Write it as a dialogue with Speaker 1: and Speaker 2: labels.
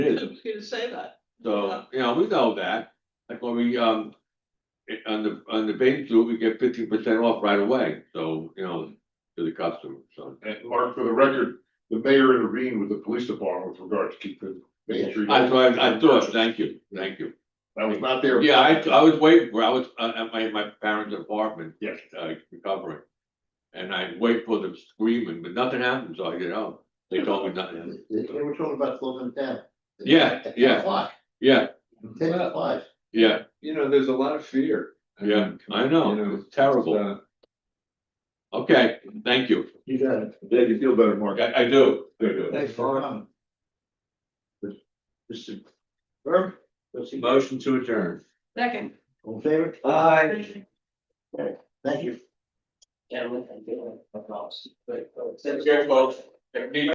Speaker 1: It is.
Speaker 2: I'm just gonna say that.
Speaker 1: So, you know, we know that, like when we, um, i- on the, on the bank too, we get fifteen percent off right away, so, you know, to the customer, so.
Speaker 3: And Mark, for the record, the mayor intervened with the police department with regard to keeping Main Street.
Speaker 1: I thought, I thought, thank you, thank you.
Speaker 3: I was not there.
Speaker 1: Yeah, I, I was waiting for, I was uh, at my, my parents' apartment,
Speaker 3: Yes.
Speaker 1: uh, recovering. And I wait for them screaming, but nothing happened, so I get out. They told me nothing happened.
Speaker 4: They they were talking about closing it down.
Speaker 1: Yeah,
Speaker 4: At
Speaker 1: yeah.
Speaker 4: Ten o'clock,
Speaker 1: Yeah,
Speaker 4: ten to five.
Speaker 1: yeah,
Speaker 5: you know, there's a lot of fear.
Speaker 1: yeah, I
Speaker 5: You know,
Speaker 1: know, it's terrible.
Speaker 5: Uh,
Speaker 1: Okay, thank you.
Speaker 4: You got it.
Speaker 5: Glad you feel better, Mark.
Speaker 1: I, I do.
Speaker 4: Thanks for coming. Mr. Burke, what's he,
Speaker 5: Motion to adjourn.
Speaker 2: Second.
Speaker 4: on favor?
Speaker 5: Aye.
Speaker 4: Thank you.
Speaker 2: Yeah, we can do it.
Speaker 1: Careful. Need